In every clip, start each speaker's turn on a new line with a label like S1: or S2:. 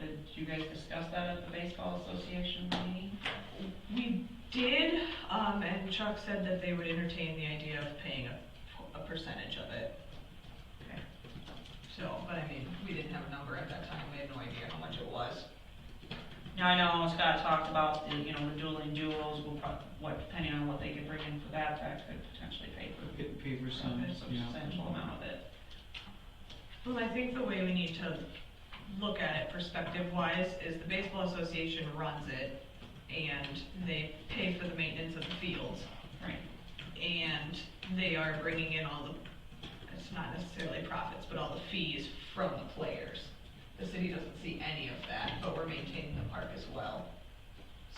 S1: did you guys discuss that at the baseball association meeting?
S2: We did, um, and Chuck said that they would entertain the idea of paying a, a percentage of it.
S1: Okay.
S2: So, but I mean, we didn't have a number at that time, we had no idea how much it was.
S1: Now, I know Scott talked about, the, you know, the dueling duels, will prob, what, depending on what they could bring in for that, that could potentially pay for
S3: Get paid for some,
S1: a
S3: um, yeah.
S1: substantial amount of it.
S2: Well, I think the way we need to look at it perspective wise is the baseball association runs it and they pay for the maintenance of the fields.
S1: Right.
S2: And they are bringing in all the, it's not necessarily profits, but all the fees from the players. The city doesn't see any of that, but we're maintaining the park as well.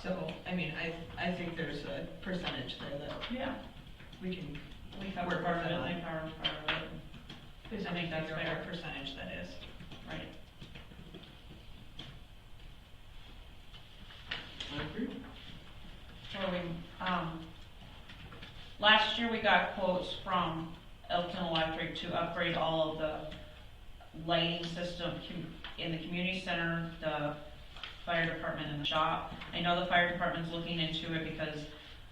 S2: So, I mean, I, I think there's a percentage there that
S1: Yeah, we can, we cover
S2: Work
S1: part of
S2: with
S1: it,
S2: that.
S1: they cover part of it,
S2: there's
S1: I think
S2: any
S1: that's
S2: figure
S1: fair.
S2: or percentage that is.
S1: right?
S3: I agree.
S1: So we, um, last year we got quotes from Elkton Electric to upgrade all of the lighting system com- in the community center, the fire department and the shop. I know the fire department's looking into it because,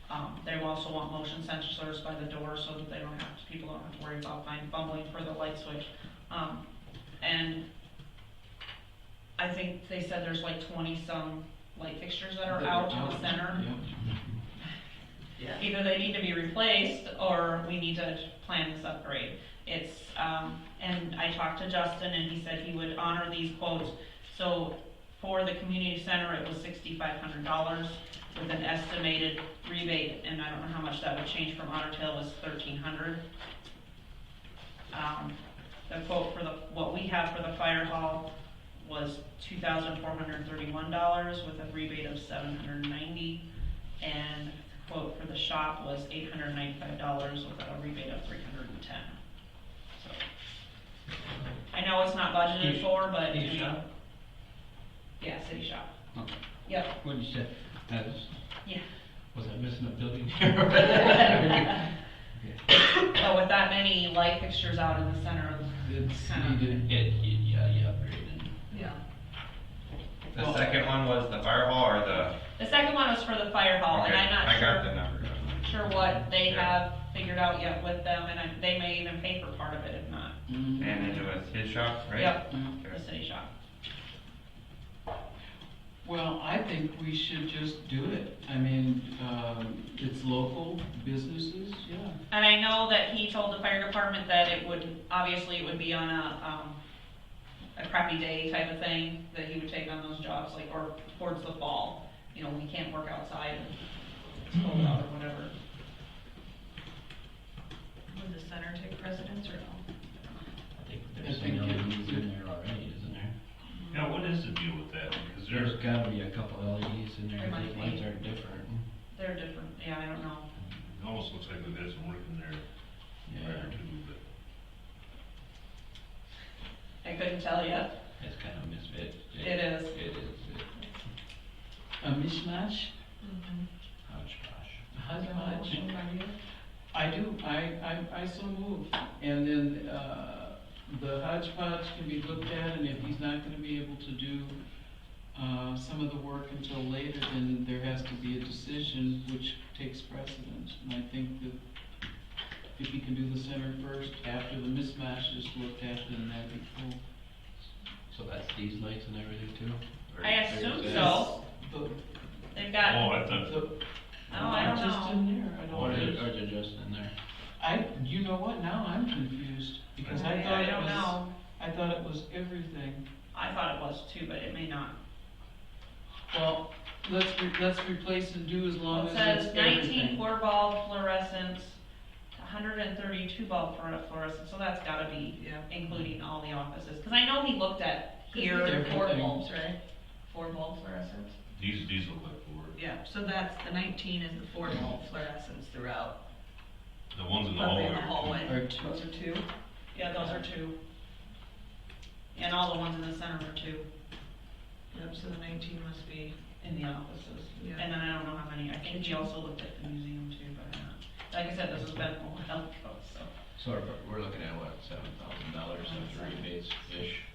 S1: um, they also want motion sensors by the door so that they don't have, to- people don't have to worry about finding, fumbling for the light switch. Um, and I think they said there's like twenty-some light fixtures that are out in the center.
S3: Yeah.
S2: Yeah.
S1: Either they need to be replaced or we need to plan this upgrade. It's, um, and I talked to Justin and he said he would honor these quotes. So for the community center, it was sixty-five hundred dollars with an estimated rebate, and I don't know how much that would change from Otter Tail was thirteen hundred. Um, the quote for the, what we have for the fire hall was two thousand four hundred thirty-one dollars with a rebate of seven hundred ninety. And the quote for the shop was eight hundred ninety-five dollars with a rebate of three hundred and ten. So I know it's not budgeted
S3: Each-
S1: for, but.
S3: each
S1: I mean-
S3: shop?
S1: Yeah, city shop.
S3: Okay.
S1: Yep,
S3: What you said, that was,
S1: yeah.
S3: was I missing a building?
S1: But with that many light fixtures out in the center,
S3: It's
S1: Kinda.
S3: needed.
S4: It, yeah, yeah, upgraded.
S2: Yeah.
S5: The second one was the fire hall or the?
S1: the second one was for the fire hall, Oh, and
S5: Okay,
S1: I'm not
S5: I got the
S1: sure,
S5: number.
S1: sure what they have
S5: Yeah.
S1: figured out yet with them, and I- they may even pay for part of it if not.
S3: Mm.
S5: And it was his shop, right?
S1: Yep,
S3: Mhm.
S1: the city shop.
S3: Well, I think we should just do it. I mean, um, it's local businesses, yeah.
S1: And I know that he told the fire department that it would, obviously it would be on a, um, a crappy day type of thing, that he would take on those jobs, like, or towards the fall. You know, we can't work outside, and it's cold out or whatever.
S2: Would the center take precedence or no?
S4: I think
S3: I
S4: there's
S3: think
S4: some
S3: it-
S4: LEDs in there already, isn't there?
S6: Yeah, what is the deal with that? Because there's,
S4: There's gotta be a couple LEDs in there,
S1: Remind
S4: the lights
S1: me.
S4: are different.
S1: They're different, yeah, I don't know.
S6: it almost looks like we've got some work in there prior
S4: Yeah,
S6: to, but.
S1: I couldn't tell you.
S4: it's kind of a misfit.
S1: It is.
S4: It is, it,
S3: A mishmash,
S2: Mm-hmm.
S4: hodgepodge.
S3: hodgepodge. I do, I, I, I so move. And then, uh, the hodgepodge can be looked at, and if he's not gonna be able to do, uh, some of the work until later, then there has to be a decision which takes precedence. And I think that if he can do the center first, after the mismatch is looked at, then that'd be cool.
S4: So that's these lights and everything too? Or
S1: I
S4: is
S1: assume
S4: that-
S1: so.
S3: The,
S1: They've
S6: Oh,
S1: got,
S6: I thought,
S3: the.
S1: Oh, I don't
S3: Just
S1: know.
S3: in there, I
S4: Or
S3: don't.
S4: is Oh, it, or is it just in there?
S3: I, you know what, now I'm confused, because I thought
S1: I
S3: it
S1: don't
S3: was,
S1: know.
S3: I thought it was everything.
S1: I thought it was too, but it may not.
S3: Well, let's, re- let's replace and do as long
S1: It
S3: as
S1: says
S3: it's
S1: nineteen
S3: everything.
S1: four bulb fluorescents, hundred and thirty-two bulb fluore- fluorescents, so that's gotta be
S2: Yeah.
S1: including all the offices. Cause I know he looked at here,
S3: They're
S1: and
S2: Four
S3: Everything.
S2: bulbs, right? Four bulb fluorescents?
S6: these, these look like four.
S2: Yeah, so that's, the nineteen is the four bulb fluorescents throughout,
S6: The ones in the
S2: up
S6: hallway.
S2: in the
S6: are too.
S2: hallway.
S3: Or two.
S2: Those are two?
S1: yeah, those are two. And all the ones in the center were two
S2: Yep, so the nineteen must be,
S1: in the offices.
S2: Yeah.
S1: And then I don't know how many, I think he also looked at the museum too, but, uh, like I said, this has been a while ago, so.
S4: So we're, we're looking at what, seven thousand dollars of rebates-ish?